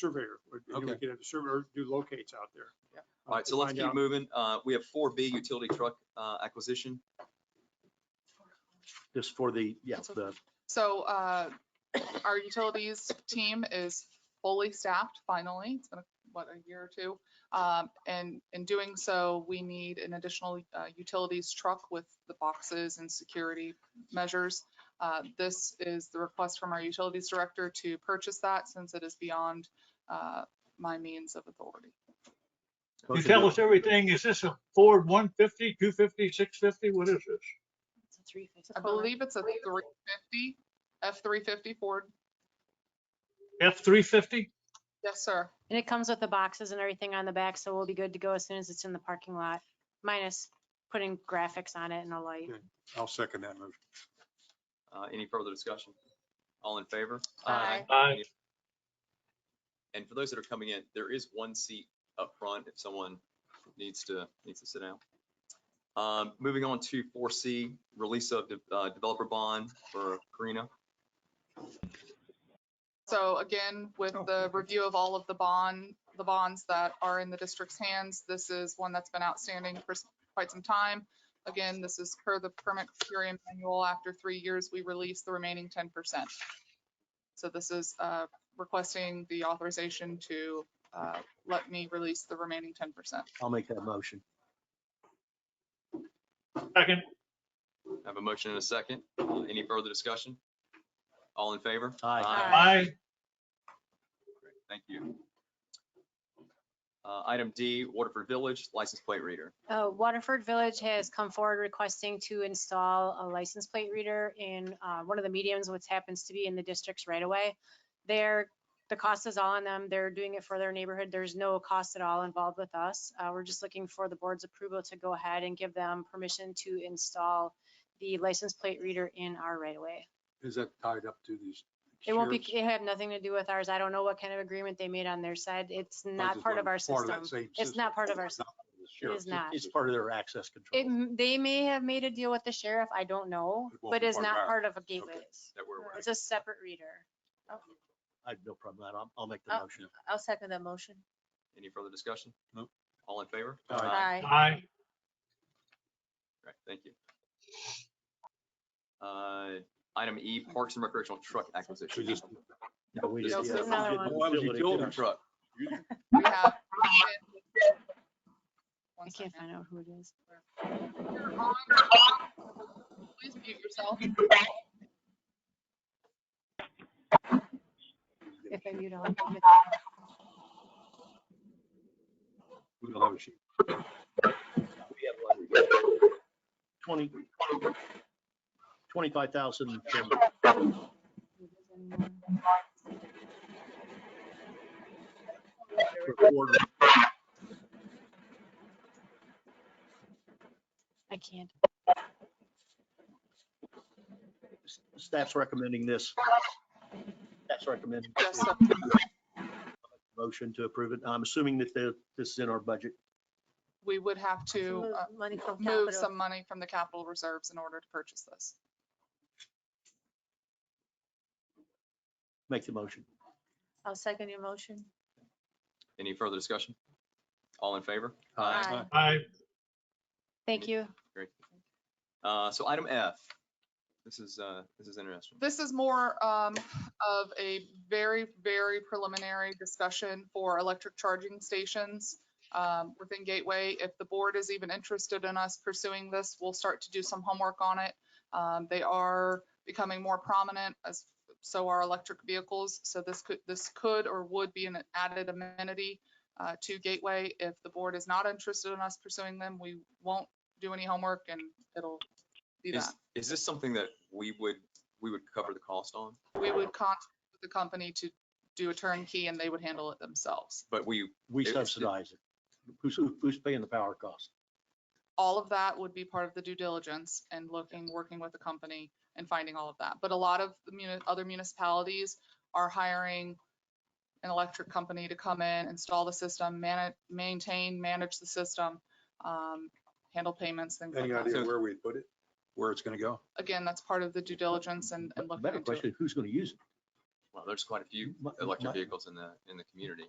surveyor. We- we Okay. could have a surveyor do locates out there. Yeah. uh, All right, to so let's find keep out. moving. Uh, We have four B utility truck uh, acquisition. Just for the, yeah, That's okay. the, So uh, our utilities team is fully staffed finally. It's been, what, a year or two? Um, And in doing so, we need an additional uh, utilities truck with the boxes and security measures. Uh, This is the request from our utilities director to purchase that since it is beyond uh, my means of authority. You motion tell to- us everything. Is this a Ford 150, 250, 650? What is this? It's a three fifty. I believe it's a 350, F-350 Ford. F-350? Yes, sir. And it comes with the boxes and everything on the back, so we'll be good to go as soon as it's in the parking lot, minus putting graphics on it and a light. Yeah. I'll second that motion. Uh, Any further discussion? All in favor? Aye. Aye. And for those that are coming in, there is one seat up front if someone needs to, needs to sit down. Um, Moving on to four C, release of de- uh, developer bond for Karina. So again, with Oh, the okay. review of all of the bond, the bonds that are in the district's hands, this is one that's been outstanding for s- quite some time. Again, this is per the permit criteria manual. After three years, we release the remaining ten percent. So this is uh, requesting the authorization to uh, let me release the remaining ten percent. I'll make that motion. Second. I Have a motion and a second. Uh, Any further discussion? All in favor? Aye. Aye. Thank you. Uh, Item D, Waterford Village license plate reader. Uh, Waterford Village has come forward requesting to install a license plate reader in uh, one of the mediums, which happens to be in the district's right away. They're, the cost is all on them. They're doing it for their neighborhood. There's no cost at all involved with us. Uh, We're just looking for the board's approval to go ahead and give them permission to install the license plate reader in our right away. Is that tied up to these? It won't be, shares? it had nothing to do with ours. I don't know what kind of agreement they made on their side. It's I not just part of wondered, our that system. same It's system. not part of our Not system. of the It shares. is not. It's part of their access It, control. m- they may have made a deal with the sheriff. I don't know, It won't but be it's part of not ours. part of a Okay. gateway's. That we're, It's a separate reader. I have no problem with that. I'll, I'll make the Oh. motion. I'll second that motion. any further discussion? Nope. All in favor? Aye. Aye. Aye. Right, thank you. Uh, Item E, Parks and Recreational Truck Acquisition. We just- But we No, did- so yeah, we another did one. the Oh, that was utility utility truck. Truck. We have. One I second. can't find out who it is. You're on. Please mute yourself. If I mute all. of them, We don't have a sheet. Twenty. Twenty-five thousand. it doesn't matter. I can't. Staff's recommending this. Staff's recommending. Yes, sir. Motion to approve it. I'm assuming that the, this is in our budget. We would have to Move uh, Money from move capital. some money from the capital reserves in order to purchase this. Make the motion. I'll second your motion. Any further discussion? All in favor? Aye. Aye. Thank Me- you. Great. Uh, So item F, this is, uh, this is interesting. This is more um, of a very, very preliminary discussion for electric charging stations um, within Gateway. If the board is even interested in us pursuing this, we'll start to do some homework on it. Um, They are becoming more prominent as so are electric vehicles. So this could, this could or would be an added amenity uh, to Gateway. If the board is not interested in us pursuing them, we won't do any homework and it'll be that Is, is this something that we would, we would cover the cost on, we would contact the company to do a turnkey and they would handle it themselves. but we, We It- subsidize it. Who's, who's paying the power cost? All of that would be part of the due diligence and looking, working with the company and finding all of that. But a lot of the muni- other municipalities are hiring an electric company to come in, install the system, manage, maintain, manage the system, um, handle payments, things like Any that. idea where we'd put it? Where it's gonna go? Again, that's part of the due diligence and, and But looking Better into it. question, who's going to use it? Well, there's quite a few My- my- electric vehicles in the, in the community.